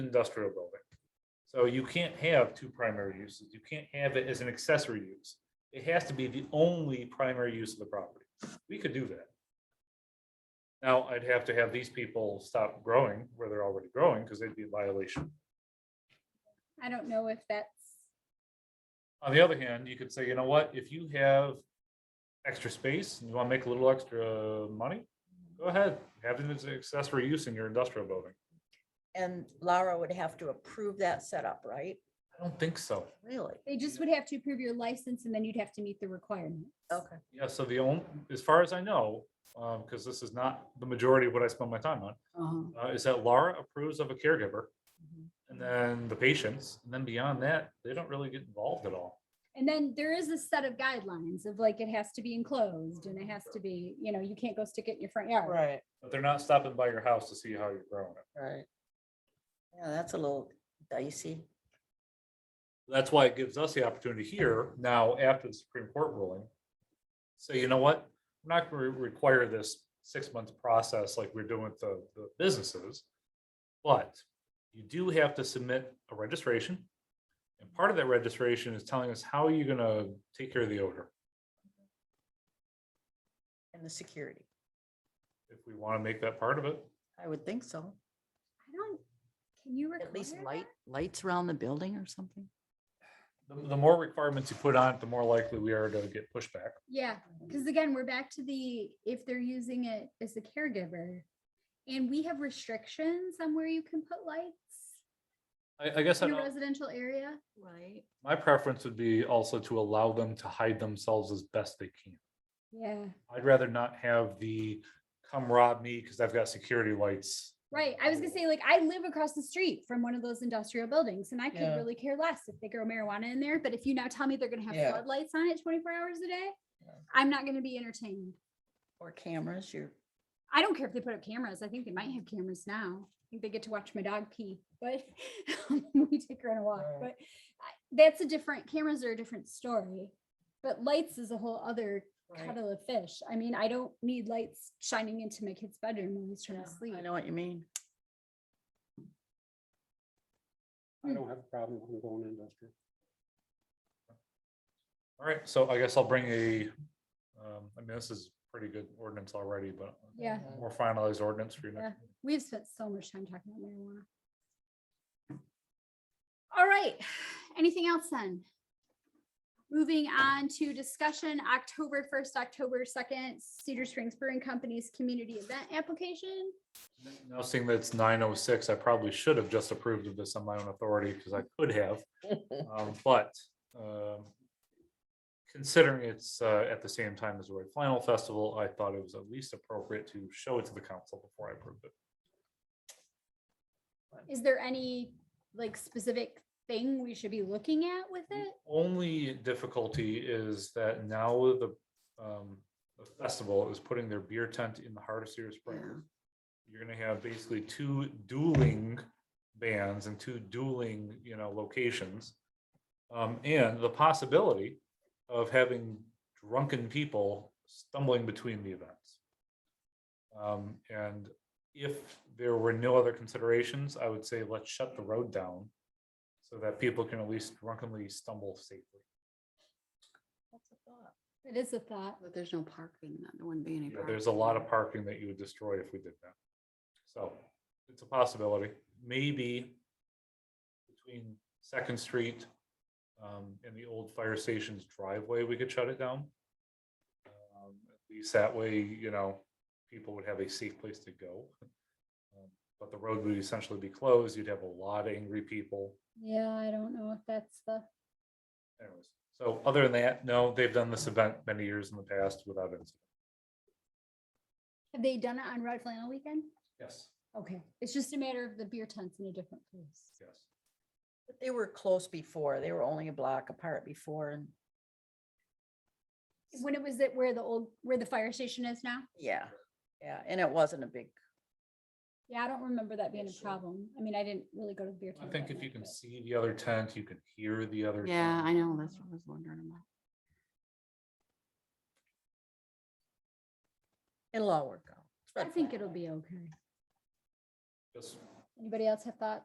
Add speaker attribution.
Speaker 1: industrial building. So you can't have two primary uses. You can't have it as an accessory use. It has to be the only primary use of the property. We could do that. Now, I'd have to have these people stop growing where they're already growing because they'd be in violation.
Speaker 2: I don't know if that's,
Speaker 1: On the other hand, you could say, you know what, if you have extra space and you want to make a little extra money, go ahead, have it as an accessory use in your industrial building.
Speaker 3: And Laura would have to approve that setup, right?
Speaker 1: I don't think so.
Speaker 3: Really?
Speaker 2: they just would have to approve your license and then you'd have to meet the requirements.
Speaker 3: Okay.
Speaker 1: Yeah, so the only, as far as I know, um, because this is not the majority of what I spend my time on,
Speaker 2: Uh-huh.
Speaker 1: uh, is that Laura approves of a caregiver.
Speaker 3: Mhm.
Speaker 1: And then the patients, and then beyond that, they don't really get involved at all.
Speaker 2: And then there is a set of guidelines of like, it has to be enclosed and it has to be, you know, you can't go stick it in your front yard.
Speaker 3: Right,
Speaker 1: But they're not stopping by your house to see how you're growing it.
Speaker 3: right. Yeah, that's a little dicey.
Speaker 1: That's why it gives us the opportunity here now after the Supreme Court ruling. Say, you know what, we're not gonna re- require this six month process like we're doing with the, the businesses. But you do have to submit a registration. And part of that registration is telling us how are you gonna take care of the odor?
Speaker 3: And the security,
Speaker 1: If we wanna make that part of it,
Speaker 3: I would think so.
Speaker 2: I don't, can you require?
Speaker 3: At least
Speaker 2: that?
Speaker 3: light, lights around the building or something?
Speaker 1: the, the more requirements you put on it, the more likely we are to get pushback.
Speaker 2: Yeah, because again, we're back to the, if they're using it as a caregiver. And we have restrictions on where you can put lights
Speaker 1: I, I guess I
Speaker 2: in a
Speaker 1: don't.
Speaker 2: residential area.
Speaker 3: Right.
Speaker 1: My preference would be also to allow them to hide themselves as best they can.
Speaker 2: Yeah,
Speaker 1: I'd rather not have the come rob me because I've got security lights.
Speaker 2: right. I was gonna say, like, I live across the street from one of those industrial buildings and I could
Speaker 3: Yeah.
Speaker 2: really care less if they grow marijuana in there. But if you now tell me they're gonna have
Speaker 3: Yeah.
Speaker 2: floodlights on it twenty-four hours a day,
Speaker 3: Yeah.
Speaker 2: I'm not gonna be entertained.
Speaker 3: Or cameras, you're,
Speaker 2: I don't care if they put up cameras. I think they might have cameras now. I think they get to watch my dog pee, but we take her on a walk.
Speaker 3: Right.
Speaker 2: But I- that's a different, cameras are a different story. But lights is a whole other
Speaker 3: right.
Speaker 2: kettle of fish. I mean, I don't need lights shining into my kid's bedroom when he's trying
Speaker 3: Yeah,
Speaker 2: to sleep.
Speaker 3: I know what you mean.
Speaker 4: I don't have a problem with them going industrial.
Speaker 1: All right, so I guess I'll bring a, um, I mean, this is pretty good ordinance already, but.
Speaker 2: Yeah.
Speaker 1: More finalized ordinance for you. next-
Speaker 2: We've spent so much time talking about marijuana. All right, anything else then? Moving on to discussion, October first, October second, Cedar Springs Brewing Company's community event application.
Speaker 1: Now seeing that it's nine oh six, I probably should have just approved of this on my own authority because I could have. Um, But um, considering it's uh, at the same time as the Red Flannel Festival, I thought it was at least appropriate to show it to the council before I approved it.
Speaker 2: Is there any like specific thing we should be looking at with
Speaker 1: The
Speaker 2: it?
Speaker 1: Only difficulty is that now the, um, the festival is putting their beer tent in the heart of Cedar Springs. You're gonna have basically two dueling bands and two dueling, you know, locations. Um, and the possibility of having drunken people stumbling between the events. Um, and if there were no other considerations, I would say let's shut the road down so that people can at least drunkenly stumble safely.
Speaker 2: It is a thought.
Speaker 5: But there's no parking, then there wouldn't be any.
Speaker 1: You know, There's a lot of parking that you would destroy if we did that. So it's a possibility, maybe between Second Street um, and the old fire station's driveway, we could shut it down. Um, At least that way, you know, people would have a safe place to go. Um, But the road would essentially be closed. You'd have a lot of angry people.
Speaker 2: Yeah, I don't know if that's the,
Speaker 1: Anyways, so other than that, no, they've done this event many years in the past without incident.
Speaker 2: have they done it on Red Flannel Weekend?
Speaker 1: Yes.
Speaker 2: Okay, it's just a matter of the beer tents in a different place.
Speaker 1: Yes.
Speaker 3: But They were close before, they were only a block apart before and,
Speaker 2: When it was at where the old, where the fire station is now?
Speaker 3: yeah, yeah, and it wasn't a big,
Speaker 2: Yeah, I don't remember that being a
Speaker 3: Issue.
Speaker 2: problem. I mean, I didn't really go to the beer
Speaker 1: I
Speaker 2: tent.
Speaker 1: think
Speaker 2: that
Speaker 1: if you
Speaker 2: night,
Speaker 1: can
Speaker 2: but-
Speaker 1: see the other tent, you can hear the other.
Speaker 5: Yeah,
Speaker 1: tent.
Speaker 5: I know, that's what I was wondering about.
Speaker 3: it'll all work out. It's
Speaker 2: I
Speaker 3: Red
Speaker 2: think
Speaker 3: Flag.
Speaker 2: it'll be okay.
Speaker 1: Just
Speaker 2: Anybody else have thoughts?